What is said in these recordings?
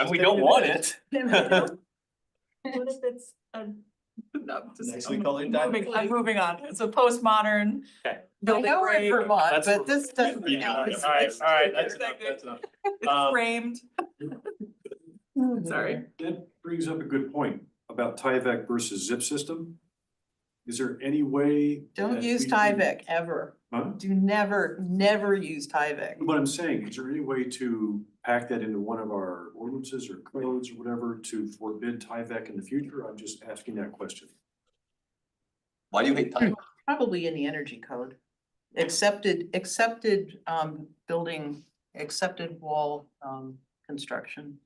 And we don't want it. What if it's a? No, just. Next I'm week I'll invite moving- you. I'm moving on, it's a postmodern. Okay. I Building know we're break, in Vermont, That's- but this doesn't. Yeah, No, All it's- right, all right, that's enough, Exactly. that's enough. it's Um, framed, sorry. That brings up a good point about Tyvek versus zip system. Is there any way? Don't that use we can- Tyvek ever. Huh? Do never, never use Tyvek. What I'm saying, is there any way to pack that into one of our ordinances or codes or whatever to forbid Tyvek in the future? I'm just asking that question. Why do you hate Tyvek? Probably in the energy code. Accepted, accepted um building, accepted wall um construction.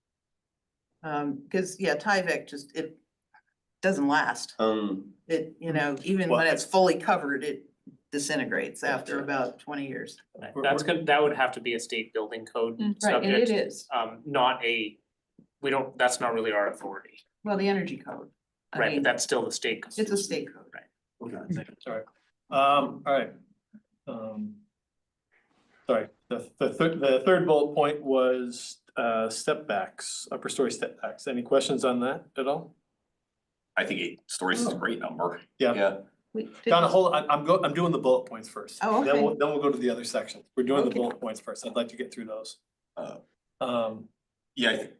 Um, cause yeah, Tyvek just, it doesn't last. Um, It, you know, even when it's fully covered, it disintegrates after about twenty years. That's good, that would have to be a state building code Mm. Right, and it subject, is. um, not a, we don't, that's not really our authority, Well, the energy code. I right? mean, But that's still the state. It's a state code. Okay. Sorry. Um, all right. Um. Sorry, the, the third, the third bullet point was, uh, step backs, upper story step backs. Any questions on that at all? I think eight stories is a great number. Yeah. We did- Donna, hold, on, I'm go, I'm doing the bullet points first. Oh, Then okay. we'll, then we'll go to the other section. We're doing the Okay. bullet points first. I'd like to get through those. Oh. Um, Yeah, I think,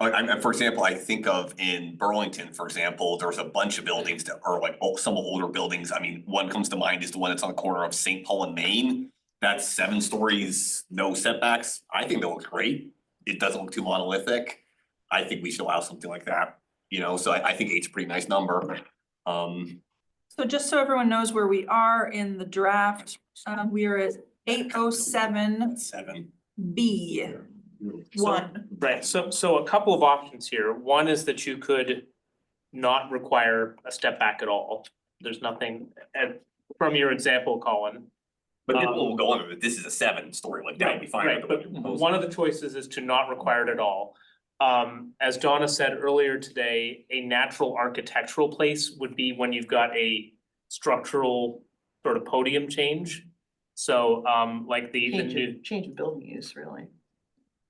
I, I, for example, I think of in Burlington, for example, there's a bunch of buildings that are like, oh, some older buildings. I mean, one comes to mind is the one that's on the corner of St. Paul and Maine. That's seven stories, no setbacks. I think that looks great. It doesn't look too monolithic. I think we should allow something like that, you know, so I, I think eight's a pretty nice number. Um, So just so everyone knows where we are in the draft, um, we are at eight oh seven seven. B Hmm, So- one. Right, so so a couple of options here, one is that you could not require a step back at all. There's nothing, and from your example, Colin. But this Um, will go on, but this is a seven story, like that would be fine. Right, but one of the choices is to not require it at all. Um, as Donna said earlier today, a natural architectural place would be when you've got a structural sort of podium change. So, um, like the, the Change new, of, change of building use, really.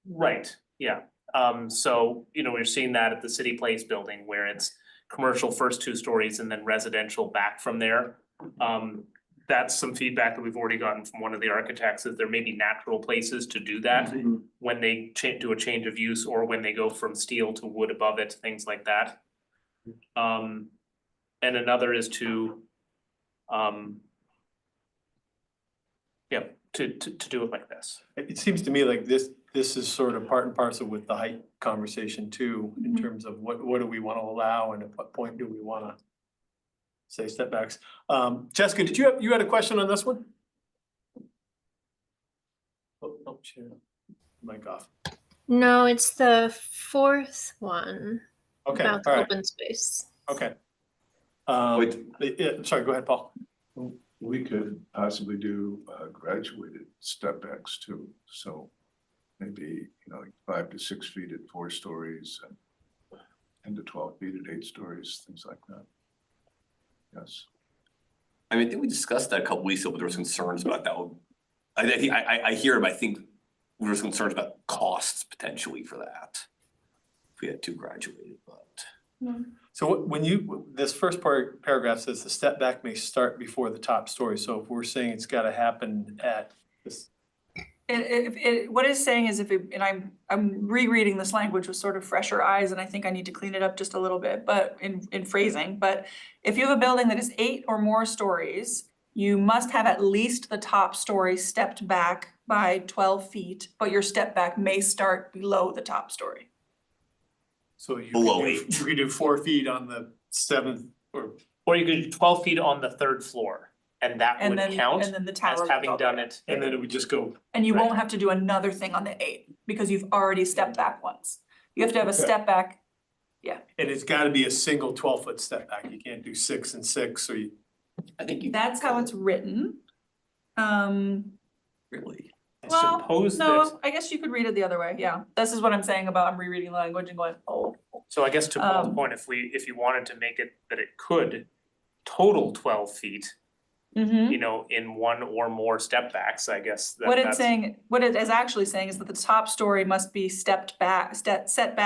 Right, yeah, um, so, you know, we're seeing that at the City Place building where it's commercial first two stories and then residential back from there. Um, that's some feedback that we've already gotten from one of the architects, that there may be natural places to do that when they cha- do a change of use or when they go from steel to wood above it, things like that. Um, and another is to, um, yeah, to, to, to do it like this. it, it seems to me like this, this is sort of part and parcel with the height conversation too, in Mhm. terms of what, what do we wanna allow and at what point do we wanna say setbacks. Um, Jessica, did you have, you had a question on this one? Oh, oh, shit. Mic off. No, it's the fourth one Okay, all about the right, open space. okay. Um, Wait. yeah, sorry, go ahead, Paul. We could possibly do uh, graduated step backs too, so maybe, you know, like five to six feet at four stories and ten to twelve feet at eight stories, things like that. Yes. I mean, I think we discussed that a couple weeks ago, but there was concerns about that. one. I, I think, I, I, I hear, it, but I think there was concerns about costs potentially for that. If we had two graduated, but. So what- when you, this first par paragraph says the step back may start before the top story, so if we're saying it's gotta happen at this, It, it, it, what it's saying is if, it- and I'm, I'm rereading this language with sort of fresher eyes, and I think I need to clean it up just a little bit, but in, in phrasing, but if you have a building that is eight or more stories, you must have at least the top story stepped back by twelve feet, but your step back may start below the top story. so you could Below do, eight. you could do four feet on the seventh or. Or you could do twelve feet on the third floor, and that And would then, count and then the tower. as goes having up. done it. And then it would just go, And you won't Right. have to do another thing on the eight, because you've already stepped back once. You have to have a step back and it's gotta be a single twelve foot step back, you can't do six and six, or you, I think you. That's how it's written. Um, Really. Well, I suppose that, no, I guess you could read it the other way, yeah. This is what I'm saying about I'm rereading the language and going, oh. so I guess to Paul's um, point, if we, if you wanted to make it that it could total twelve feet, Mhm. you know, in one or more step backs, I guess. that- What it's that's- saying, what it is actually saying is that the top story must be stepped back, step, set back